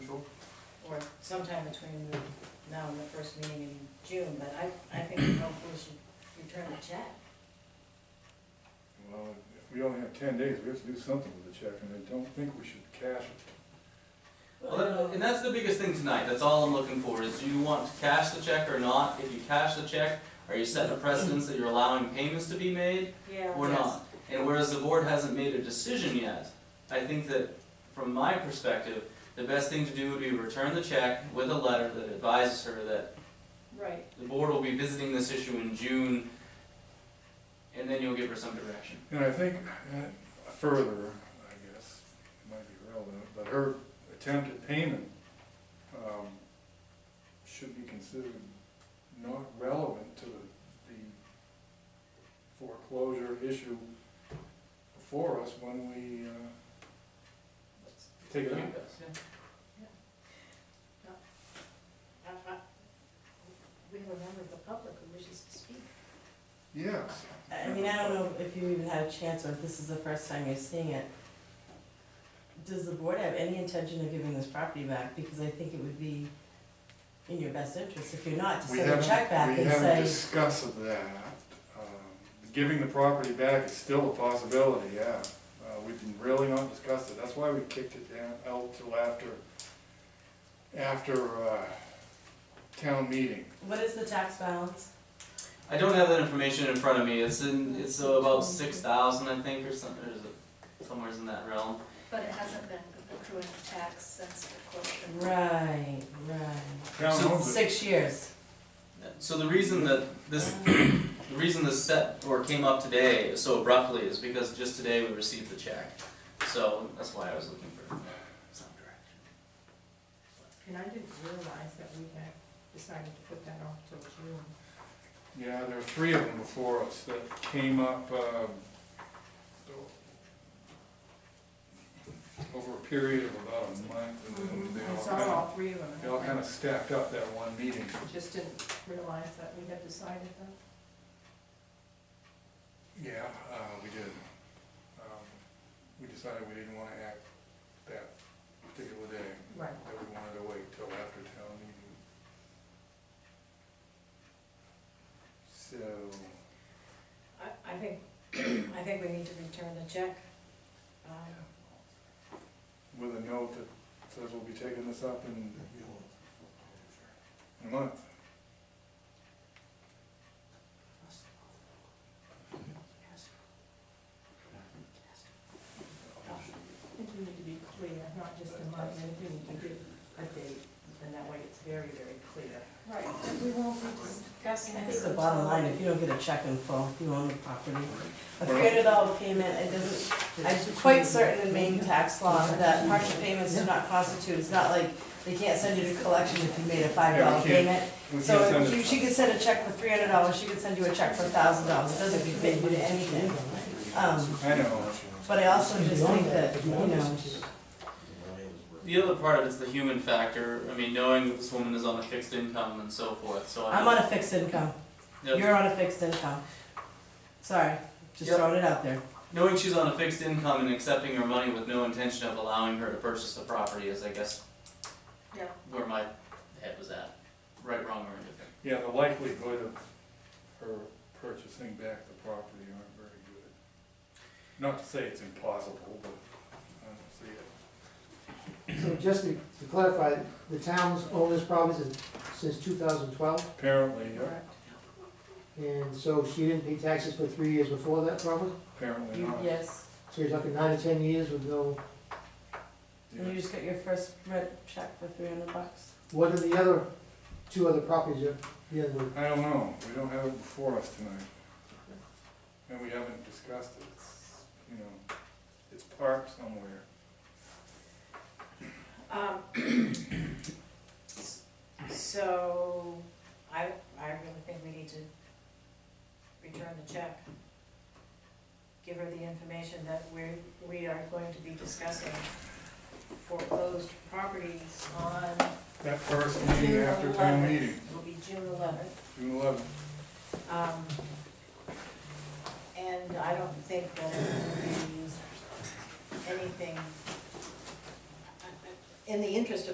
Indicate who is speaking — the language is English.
Speaker 1: sometime between the- now and the first meeting in June, but I, I think the golf course should return the check.
Speaker 2: Well, if we only have ten days, we have to do something with the check, and I don't think we should cash it.
Speaker 3: Well, that- and that's the biggest thing tonight, that's all I'm looking for, is do you want to cash the check or not? If you cash the check, are you setting a precedence that you're allowing payments to be made
Speaker 1: Yeah.
Speaker 3: or not? And whereas the board hasn't made a decision yet, I think that, from my perspective, the best thing to do would be return the check with a letter that advises her that
Speaker 4: Right,
Speaker 3: the board will be visiting this issue in June, and then you'll give her some direction.
Speaker 2: And I think uh, further, I guess, it might be relevant, but her attempt at payment um, should be considered not relevant to the- the foreclosure issue before us when we uh, take it up.
Speaker 1: I- I- We have a member of the public who wishes to speak.
Speaker 2: Yes.
Speaker 5: I mean, I don't know if you even had a chance or if this is the first time you're seeing it. Does the board have any intention of giving this property back? Because I think it would be in your best interest if you're not to
Speaker 2: We
Speaker 5: send a
Speaker 2: haven't,
Speaker 5: check back
Speaker 2: we
Speaker 5: and
Speaker 2: haven't
Speaker 5: say,
Speaker 2: discussed that. Um, Giving the property back is still a possibility, yeah. Uh, We've been really not discussed it, that's why we kicked it down, out till after, after uh, town meeting.
Speaker 5: what is the tax balance?
Speaker 3: I don't have that information in front of me. It's in, it's uh, about six thousand, I think, or something, or is it somewhere in that realm.
Speaker 4: but it hasn't been accruing tax since the closure.
Speaker 5: Right, right.
Speaker 2: Town
Speaker 3: So
Speaker 2: owns it.
Speaker 5: Six years.
Speaker 3: So the reason that this, the reason this set or came up today so abruptly is because just today we received the check. So that's why I was looking for some direction.
Speaker 6: And I didn't realize that we had decided to put that off till June.
Speaker 2: Yeah, there were three of them before us that came up um, over a period of about a month, and then
Speaker 5: Mm-hmm.
Speaker 2: they
Speaker 6: I
Speaker 2: all
Speaker 6: saw
Speaker 2: kind
Speaker 6: all
Speaker 2: of,
Speaker 6: three of them.
Speaker 2: they all kind of stacked up that one meeting.
Speaker 6: I Just didn't realize that we had decided that.
Speaker 2: Yeah, uh, we did. Um, We decided we didn't wanna act that particular day,
Speaker 6: Right.
Speaker 2: that we wanted to wait till after town meeting. So,
Speaker 1: I, I think, I think we need to return the check. Um,
Speaker 2: with a note that says we'll be taking this up in in a month.
Speaker 6: I think we need to be clear, not just a month, I think we need to give a date, and that way it's very, very clear.
Speaker 4: Right, and we won't be discussing
Speaker 5: I
Speaker 4: this.
Speaker 5: think the
Speaker 4: until-
Speaker 5: bottom line, if you don't get a check in full, you own the property. A
Speaker 2: Well-
Speaker 5: three hundred dollar payment, it doesn't I'm quite certain in Maine tax law that partial payments do not constitute, it's not like they can't send you to collection if you made a five
Speaker 2: Yeah,
Speaker 5: dollar
Speaker 2: we can't-
Speaker 5: payment.
Speaker 2: We can
Speaker 5: So
Speaker 2: send
Speaker 5: if you-
Speaker 2: it-
Speaker 5: she could send a check for three hundred dollars, she could send you a check for a thousand dollars, it doesn't commit you to anything. Um,
Speaker 2: I know,
Speaker 5: but I also just think that, you know,
Speaker 3: The other part of it's the human factor. I mean, knowing that this woman is on a fixed income and so forth, so I.
Speaker 5: I'm on a fixed income,
Speaker 3: Yep.
Speaker 5: you're on a fixed income. Sorry, just
Speaker 3: Yep.
Speaker 5: throwing it out there.
Speaker 3: Knowing she's on a fixed income and accepting her money with no intention of allowing her to purchase the property is, I guess,
Speaker 4: Yeah.
Speaker 3: where my head was at. Right, wrong, or indifferent.
Speaker 2: yeah, the likelihood of her purchasing back the property aren't very good. Not to say it's impossible, but I don't see it.
Speaker 7: So just to to clarify, the town's owned this property since, since two thousand twelve,
Speaker 2: Apparently, yeah,
Speaker 7: and so she didn't pay taxes for three years before that probably?
Speaker 2: apparently
Speaker 5: You-
Speaker 2: not.
Speaker 5: Yes,
Speaker 7: So you're talking nine to ten years with no,
Speaker 2: Yeah.
Speaker 5: and you just got your first rent check for three hundred bucks.
Speaker 7: what are the other, two other properties you're dealing with?
Speaker 2: I don't know, we don't have it before us tonight. And we haven't discussed it, it's, you know, it's parked somewhere.
Speaker 1: Um, So, I, I really think we need to return the check. Give her the information that we're, we are going to be discussing foreclosed properties on,
Speaker 2: That first meeting after town meeting,
Speaker 1: will be June eleventh.
Speaker 2: June eleventh,
Speaker 1: Um, And I don't think that it will be anything, in the interest of.